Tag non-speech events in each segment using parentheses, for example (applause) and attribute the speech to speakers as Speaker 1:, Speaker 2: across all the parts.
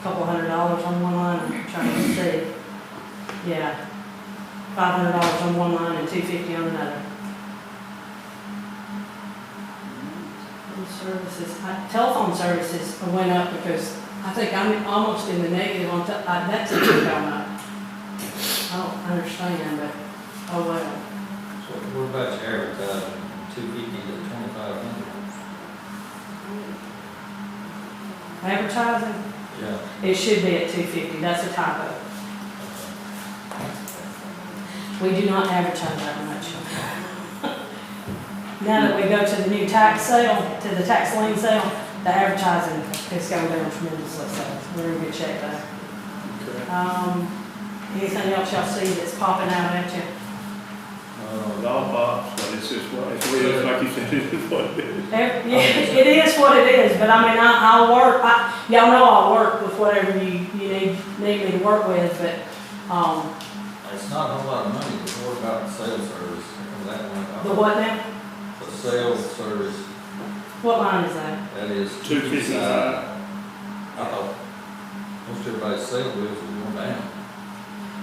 Speaker 1: couple hundred dollars on one line, I'm trying to see. Yeah, five hundred dollars on one line and two fifty on another. And services, I- telephone services went up because I think I'm almost in the negative on, te- uh, I- that's a big amount. I don't understand, but, oh well.
Speaker 2: So what about your advertising, two fifty to twenty-five hundred?
Speaker 1: Advertising,
Speaker 2: Yeah.
Speaker 1: it should be at two fifty, that's a typo. We do not advertise that much. (laughs) Now that we go to the new tax sale, to the tax lien sale, the advertising is going down tremendously, so we're in good shape there.
Speaker 3: Okay.
Speaker 1: Um, anything else y'all see that's popping out at you?
Speaker 2: Uh,
Speaker 3: Well, I'll box, but it's just, what- it's weird, like you said, it's what it is.
Speaker 1: Ev- yeah, It is what it is, but I mean, I, I'll work, I, y'all know I'll work with whatever you, you need, need me to work with, but, um,
Speaker 2: It's not a whole lot of money, but what about the sales service, that one?
Speaker 1: the what now?
Speaker 2: The sales service,
Speaker 1: What line is that?
Speaker 2: that is.
Speaker 3: 255.
Speaker 2: I thought, most everybody's sales bills are going down.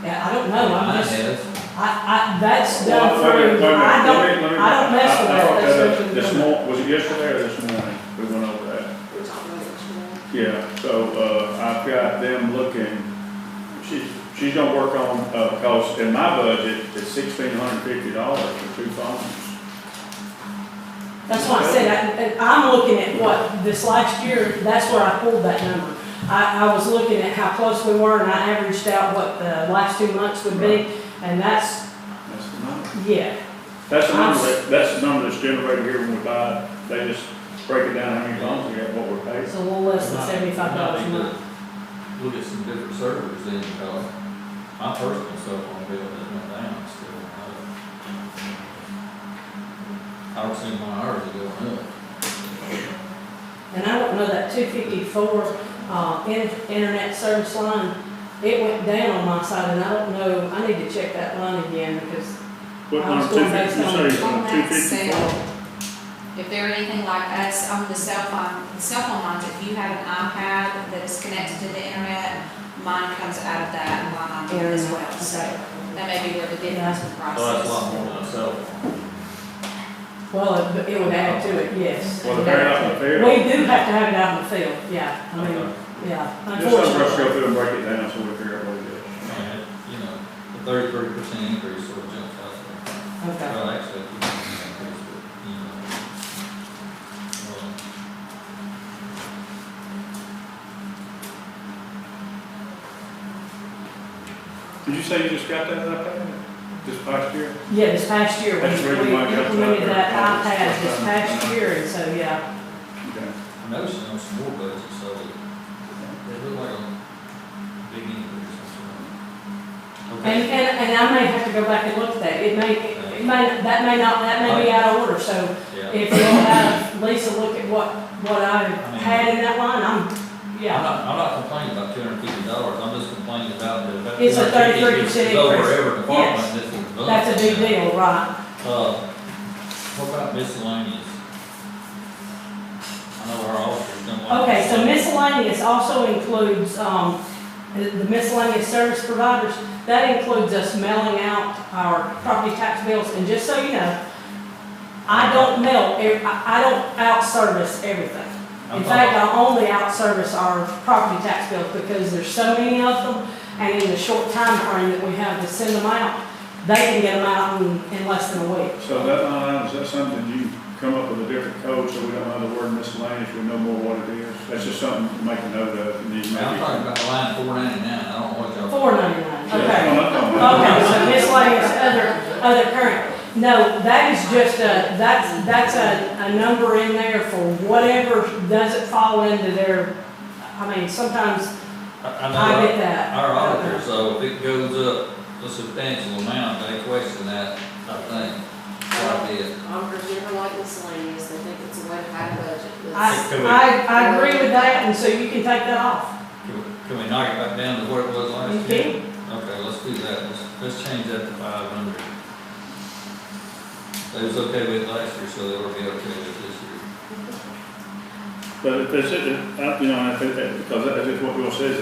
Speaker 1: Yeah, I don't know, I'm
Speaker 2: Mine
Speaker 1: just,
Speaker 2: has.
Speaker 1: I, I, that's
Speaker 3: Well,
Speaker 1: done
Speaker 3: wait a minute,
Speaker 1: through,
Speaker 3: wait a
Speaker 1: I
Speaker 3: minute, let me- let
Speaker 1: don't,
Speaker 3: me-
Speaker 1: I don't mess with
Speaker 3: I- I
Speaker 1: that,
Speaker 3: brought
Speaker 1: that's
Speaker 3: up
Speaker 1: something.
Speaker 3: This mor, was it yesterday or this morning, we went over that? Yeah, so, uh, I've got them looking, she's, she's gonna work on, uh, cause in my budget, it's sixteen hundred fifty dollars for two phones.
Speaker 1: That's why I said, I, I'm looking at what, this last year, that's where I pulled that number. I, I was looking at how close we were and I averaged out what the last two months would be, and that's,
Speaker 3: That's the number.
Speaker 1: yeah,
Speaker 3: That's the number, that- that's the number that's generated here when we buy, it. they just break it down how many phones we got, what we're paying.
Speaker 1: it's a little less than seventy-five dollars a month.
Speaker 2: Look at some different servers then, because my personal cell phone bill has went down still. I- I don't see my hours are going up.
Speaker 1: And I don't know that two fifty-four, uh, in- internet service line, it went down on my side, and I don't know, I need to check that line again, because
Speaker 3: What
Speaker 1: I was
Speaker 3: number, two
Speaker 1: going based
Speaker 3: fifty, you say,
Speaker 4: On
Speaker 3: two
Speaker 4: that
Speaker 3: fifty-four?
Speaker 4: cell, if they're anything like us on the cell phone, the cell phone lines, if you have an iPad that is connected to the internet, mine comes out of that line
Speaker 1: internet
Speaker 4: as
Speaker 1: is
Speaker 4: well, so that may be where the difference in price
Speaker 2: So that's a lot
Speaker 4: is.
Speaker 2: more than a cell phone.
Speaker 1: Well, it- it would add to it, yes.
Speaker 3: Well, they're out in the field.
Speaker 1: We do have to have it out in the field, yeah, I mean, yeah,
Speaker 3: Just let us go
Speaker 1: unfortunately.
Speaker 3: through and break it down so we figure out what it is.
Speaker 2: And, you know, a thirty-three percent increase sort of jumps out there.
Speaker 1: Okay,
Speaker 2: Well, actually, you can increase, but, you know. well,
Speaker 3: Did you say you just got that iPad this past year?
Speaker 1: yeah, this past year, we
Speaker 3: That's the reason
Speaker 1: we
Speaker 3: why I got that
Speaker 1: implemented
Speaker 3: there.
Speaker 1: that
Speaker 3: That was the
Speaker 1: iPad this
Speaker 3: first time.
Speaker 1: past year, and so, yeah,
Speaker 3: Okay.
Speaker 2: I noticed on some more budgets, so they, they look like a big increase. that's all.
Speaker 1: and,
Speaker 2: Okay.
Speaker 1: and, and I may have to go back and look at that, it may, it may, that may not, that may be out of order, so
Speaker 2: Yeah.
Speaker 1: if you'll have Lisa look at what, what I had in that line, I'm,
Speaker 2: I'm
Speaker 1: yeah.
Speaker 2: not, I'm not complaining about two hundred fifty dollars, I'm just complaining about the.
Speaker 1: It's a 33%
Speaker 2: Over
Speaker 1: increase.
Speaker 2: every department that's been done.
Speaker 1: That's a big deal, right,
Speaker 2: Uh, what about miscellaneous? I know our officers don't like.
Speaker 1: okay, so
Speaker 2: miscellaneous.
Speaker 1: miscellaneous also includes, um, the the miscellaneous service providers, that includes us mailing out our property tax bills, and just so you know, I don't mail, ev- I, I don't outservice everything. In
Speaker 2: I'm
Speaker 1: fact,
Speaker 2: talking-
Speaker 1: I only outservice our property tax bills because there's so many of them, and in the short time frame that we have to send them out, they can get them out in, in less than a week.
Speaker 3: So that line item, is that something you come up with a different code so we don't have the word miscellaneous, we know more what it is? That's just something to make a note of and you
Speaker 2: I'm talking
Speaker 3: maybe.
Speaker 2: about line four ninety-nine, I don't know what y'all.
Speaker 1: Four ninety-nine, okay.
Speaker 3: Yeah, I'm talking about-
Speaker 1: Okay, so miscellaneous other, other current. No, that is just a, that's, that's a, a number in there for whatever doesn't fall into their, I mean, sometimes
Speaker 2: I, I know.
Speaker 1: I get that.
Speaker 2: our auditor, so if it goes up a substantial amount, they question that, I think, quite a bit.
Speaker 5: Auditors never like miscellaneous, they think it's a way to hide a budget.
Speaker 1: I,
Speaker 5: That's-
Speaker 1: I, I agree with that, and so you can take that off.
Speaker 2: Can we, can we knock it back down to what it was
Speaker 1: You
Speaker 2: last year?
Speaker 1: can,
Speaker 2: Okay, let's do that, let's, let's change that to five hundred. They was okay with it last year, so they will be okay with it this year.
Speaker 3: But if it's, it- I- you know, I think that, because that is what Bill says,